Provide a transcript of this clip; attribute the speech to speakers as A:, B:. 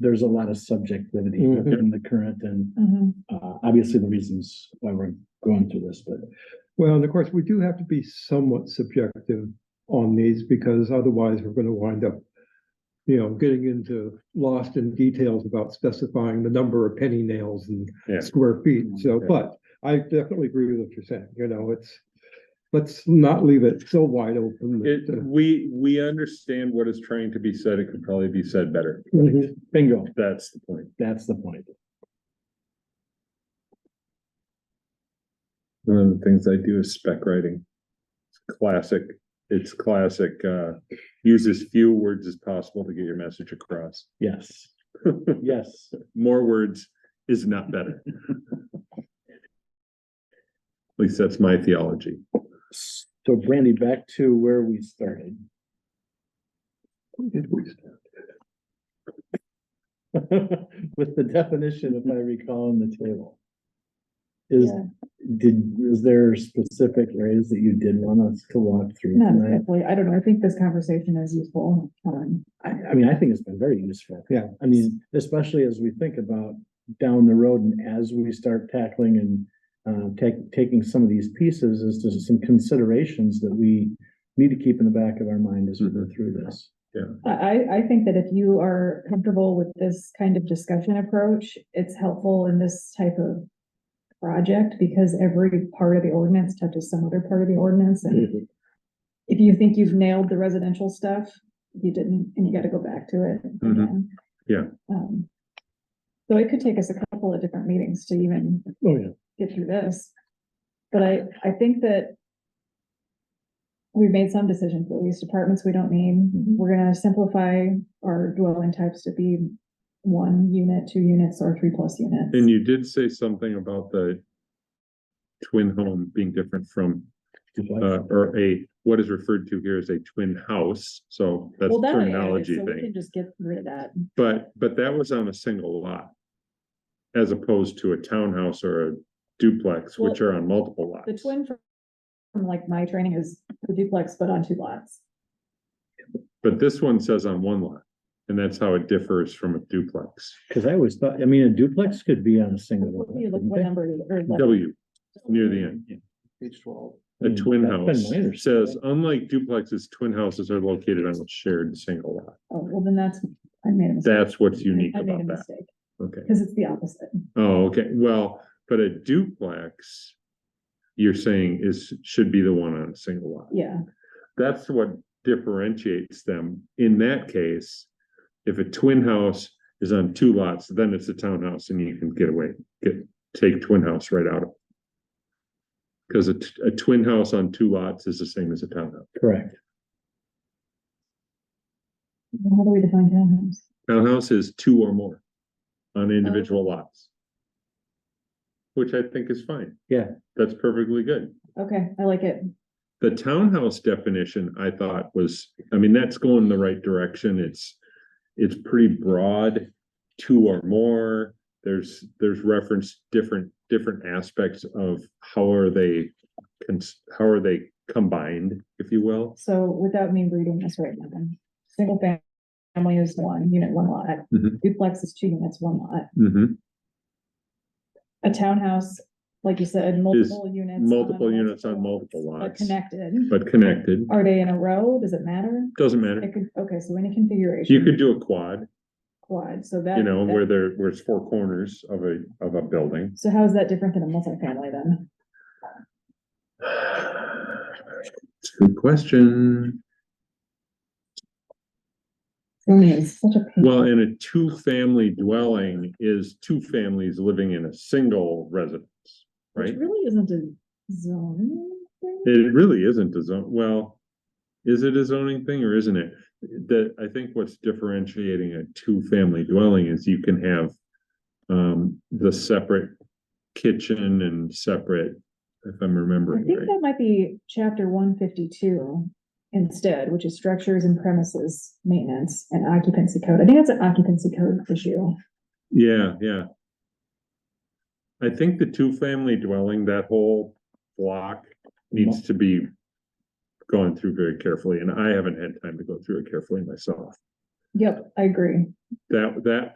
A: there's a lot of subjectivity
B: Mhm.
A: in the current and, uh, obviously the reasons why we're going through this, but
B: Well, and of course, we do have to be somewhat subjective on these because otherwise we're going to wind up, you know, getting into lost in details about specifying the number of penny nails and
C: Yeah.
B: square feet. So,
C: Yeah.
B: but I definitely agree with what you're saying, you know, it's, let's not leave it so wide open.
C: It,
B: that, uh,
C: we, we understand what is trying to be said. It could probably be said better.
B: Mhm.
A: bingo,
C: That's the point.
A: that's the point.
C: One of the things I do is spec writing. It's Classic, it's classic, uh, use as few words as possible to get your message across.
A: Yes, yes.
C: More words is not better. At least that's my theology.
A: So Brandy, back to where we started.
B: Did we start?
A: With the definition, if I recall, in the table. Is,
D: Yeah.
A: did, is there specific areas that you did want us to walk through
D: Not
A: tonight?
D: exactly. I don't know. I think this conversation is useful. Um,
A: I, I mean, I think it's been very useful.
B: Yeah.
A: I mean, especially as we think about down the road and as we start tackling and uh, take, taking some of these pieces is just some considerations that we need to keep in the back of our mind as we
C: Mm-hmm.
A: go through this.
D: I, I, I think that if you are comfortable with this kind of discussion approach, it's helpful in this type of project because every part of the ordinance touches some other part of the ordinance. And if you think you've nailed the residential stuff, you didn't, and you gotta go back to it.
C: Mhm.
D: again.
C: Yeah.
D: Um, So it could take us a couple of different meetings to even
A: Oh, yeah.
D: get through this. But I, I think that we've made some decisions, at least departments we don't need. We're gonna simplify our dwelling types to be one unit, two units, or three plus units.
C: And you did say something about the twin home being different from, uh, or a, what is referred to here as a twin house. So that's
D: Well,
C: a
D: that I added,
C: terminology
D: so we
C: thing.
D: can Just get rid of that.
C: But, but that was on a single lot. As opposed to a townhouse or a duplex, which
D: Well,
C: are on multiple lots.
D: The twin from, from like my training is the duplex, but on two lots.
C: But this one says on one lot, and that's how it differs from a duplex.
A: Cause I always thought, I mean, a duplex could be on a single. lot,
D: What do you look-
A: couldn't
D: what
A: they?
D: number is it? Or what-
C: W, near the end.
A: I
C: A
A: mean, Hmm, that's
C: twin
A: been
C: house
A: my understanding.
C: says, unlike duplexes, twin houses are located on a shared single lot.
D: Oh, well, then that's, I made a mistake.
C: That's what's unique
D: I made a
C: about that.
D: mistake,
C: Okay.
D: Cause it's the opposite.
C: Oh, okay. Well, but a duplex, you're saying is, should be the one on a single lot.
D: Yeah.
C: that's what differentiates them. In that case, if a twin house is on two lots, then it's a townhouse and you can get away, get, take twin house right out of. it. Cause a, t- a twin house on two lots is the same as a townhouse.
A: Correct.
D: How do we define townhomes?
C: Townhouse is two or more on individual lots. Which I think is fine.
A: Yeah.
C: That's perfectly good.
D: Okay, I like it.
C: The townhouse definition, I thought was, I mean, that's going in the right direction. It's, it's pretty broad. Two or more, there's, there's reference different, different aspects of how are they, cons- how are they combined, if you will.
D: So without me reading this right now, then, single fam- family is one unit, one lot.
C: Mhm.
D: Duplex is two units, one lot.
C: Mhm.
D: A townhouse, like you said, multiple units. on
C: multiple units on multiple
D: but
C: lots.
D: Connected.
C: But connected,
D: Are they in a row? Does it matter?
C: doesn't matter.
D: It could, okay, so any configuration.
C: You could do a quad,
D: Quad, so that.
C: you know,
D: that-
C: where there, where it's four corners of a, of a building.
D: So how is that different than a multifamily then?
C: It's a good question.
D: Zoning is such a pain.
C: Well, in a two-family dwelling is two families living in a single residence,
D: Which
C: right?
D: really isn't a zone. thing.
C: It really isn't a zone, well, is it a zoning thing or isn't it? That, I think what's differentiating a two-family dwelling is you can have um, the separate kitchen and separate, if I'm
D: I
C: remembering
D: think
C: right.
D: that might be chapter one fifty-two instead, which is structures and premises, maintenance and occupancy code. I think that's an occupancy code issue.
C: Yeah, yeah. I think the two-family dwelling, that whole block needs to be gone through very carefully, and I haven't had time to go through it carefully myself.
D: Yep, I agree.
C: That, that